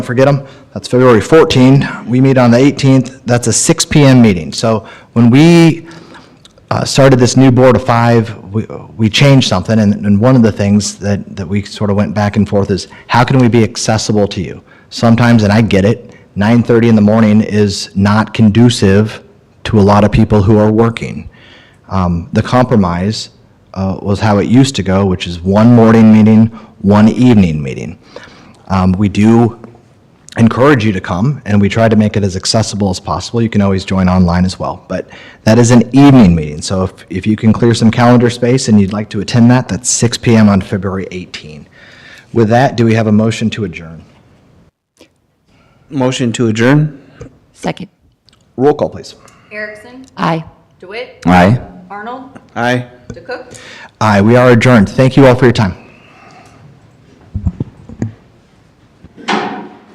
Don't forget them. That's February 14. We meet on the 18th. That's a 6 PM meeting. So when we uh, started this new board of five, we we changed something, and and one of the things that that we sort of went back and forth is, how can we be accessible to you? Sometimes, and I get it, 9:30 in the morning is not conducive to a lot of people who are working. Um, The compromise uh, was how it used to go, which is one morning meeting, one evening meeting. Um, We do encourage you to come, and we try to make it as accessible as possible. You can always join online as well, but that is an evening meeting, so if, if you can clear some calendar space and you'd like to attend that, that's 6 PM on February 18. With that, do we have a motion to adjourn? Motion to adjourn? Second. Roll call, please. Erickson, Aye. DeWitt, Aye. Arnold, Aye. DeCook. Aye, we are adjourned. Thank you all for your time.